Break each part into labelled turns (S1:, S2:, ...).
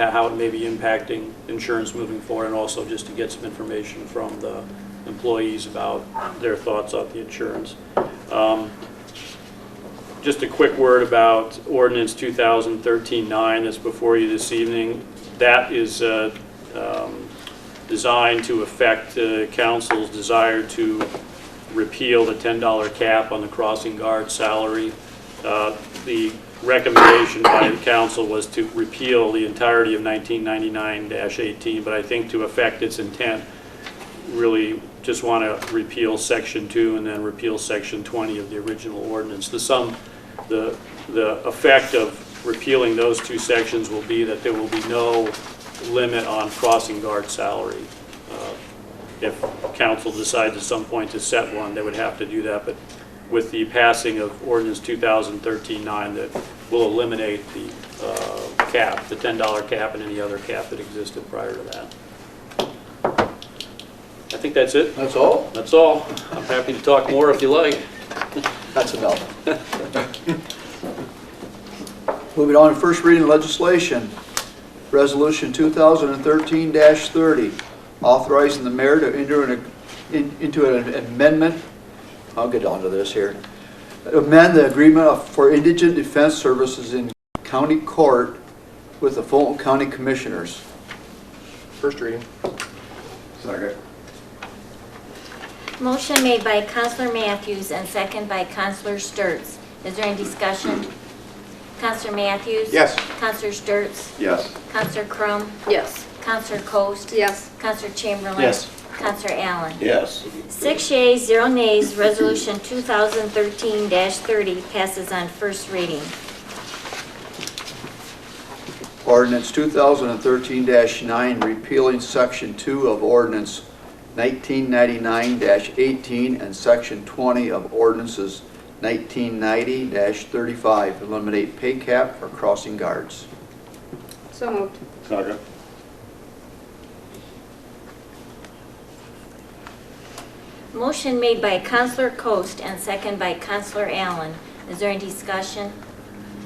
S1: at how it may be impacting insurance moving forward, and also just to get some information from the employees about their thoughts on the insurance. Um, Just a quick word about ordinance 2013-9 that's before you this evening. That is uh, um, designed to affect uh, council's desire to repeal the $10 cap on the crossing guard salary. Uh, The recommendation by the council was to repeal the entirety of 1999-18, but I think to affect its intent, really just want to repeal Section 2 and then repeal Section 20 of the original ordinance. The sum, the, the effect of repealing those two sections will be that there will be no limit on crossing guard salary. Uh, If council decides at some point to set one, they would have to do that, but with the passing of ordinance 2013-9 that will eliminate the uh, cap, the $10 cap and any other cap that existed prior to that. I think that's it.
S2: That's all?
S1: That's all. I'm happy to talk more if you like.
S2: That's enough. Moving on, first reading legislation, Resolution 2013-30, authorizing the mayor to enter an- in- into an amendment, I'll get onto this here, amend the agreement of- for indigent defense services in county court with the Fulton County Commissioners.
S3: First reading.
S4: Second.
S5: Motion made by Counselor Matthews and second by Counselor Sturts. Is there any discussion? Counselor Matthews?
S3: Yes.
S5: Counselor Sturts?
S4: Yes.
S5: Counselor Crum?
S6: Yes.
S5: Counselor Coast?
S6: Yes.
S5: Counselor Chamberlain?
S3: Yes.
S5: Counselor Allen?
S4: Yes.
S5: Six yeas, zero nays, Resolution 2013-30 passes on first reading.
S2: Ordinance 2013-9 repealing Section 2 of Ordinance 1999-18 and Section 20 of Ordinances 1990-35, eliminate pay cap for crossing guards.
S6: So moved.
S4: Second.
S5: Motion made by Counselor Coast and second by Counselor Allen. Is there any discussion?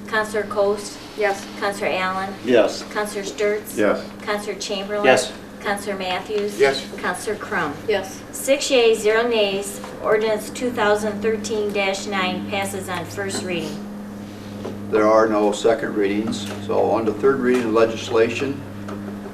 S5: Counselor Coast?
S6: Yes.
S5: Counselor Allen?
S4: Yes.
S5: Counselor Sturts?
S4: Yes.
S5: Counselor Chamberlain?
S3: Yes.
S5: Counselor Matthews?
S3: Yes.
S5: Counselor Crum?
S6: Yes.
S5: Six yeas, zero nays, ordinance 2013-9 passes on first reading.
S2: There are no second readings, so on to third reading of legislation,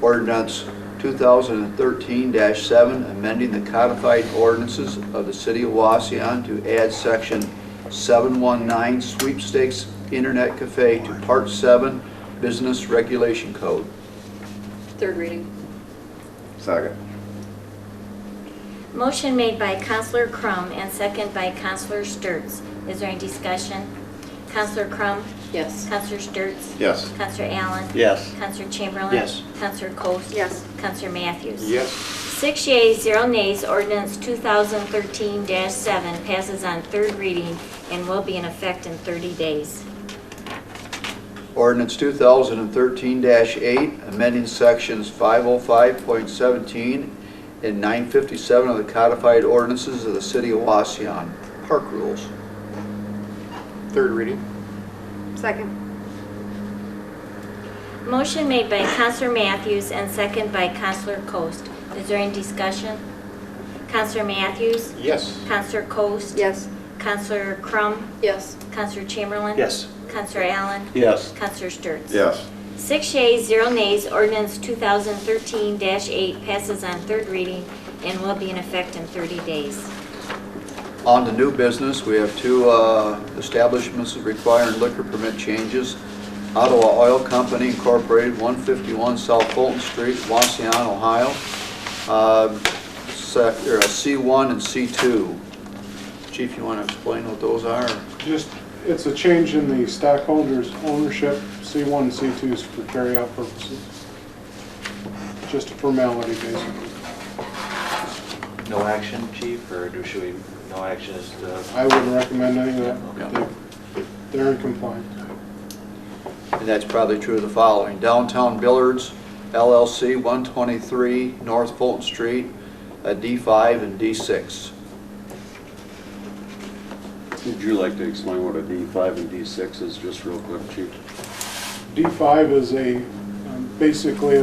S2: ordinance 2013-7, amending the codified ordinances of the city of Waseon to add section 719 sweepstakes internet cafe to part 7 business regulation code.
S6: Third reading.
S4: Second.
S5: Motion made by Counselor Crum and second by Counselor Sturts. Is there any discussion? Counselor Crum?
S6: Yes.
S5: Counselor Sturts?
S4: Yes.
S5: Counselor Allen?
S4: Yes.
S5: Counselor Chamberlain?
S3: Yes.
S5: Counselor Coats?
S6: Yes.
S5: Counselor Matthews?
S3: Yes.
S5: Six yeas, zero nays, ordinance 2013-7 passes on third reading and will be in effect in 30 days.
S2: Ordinance 2013-8, amending sections 505.17 and 957 of the codified ordinances of the city of Waseon, park rules.
S3: Third reading.
S6: Second.
S5: Motion made by Counselor Matthews and second by Counselor Coast. Is there any discussion? Counselor Matthews?
S3: Yes.
S5: Counselor Coast?
S6: Yes.
S5: Counselor Crum?
S6: Yes.
S5: Counselor Chamberlain?
S3: Yes.
S5: Counselor Allen?
S4: Yes.
S5: Counselor Sturts?
S4: Yes.
S5: Six yeas, zero nays, ordinance 2013-8 passes on third reading and will be in effect in 30 days.
S2: On to new business, we have two uh, establishments requiring liquor permit changes. Ottawa Oil Company Incorporated, 151 South Fulton Street, Waseon, Ohio. Uh, sec- or, uh, C1 and C2. Chief, you want to explain what those are?
S7: Just, it's a change in the stockholders' ownership, C1 and C2s for carryout purposes. Just a formality, basically.
S8: No action, chief, or do should we, no action is, uh,
S7: I wouldn't recommend any of that. They- They're in compliance.
S2: And that's probably true of the following. Downtown Billards LLC, 123 North Fulton Street, uh, D5 and D6.
S4: Would you like to explain what a D5 and D6 is, just real quick, chief?
S7: D5 is a um, basically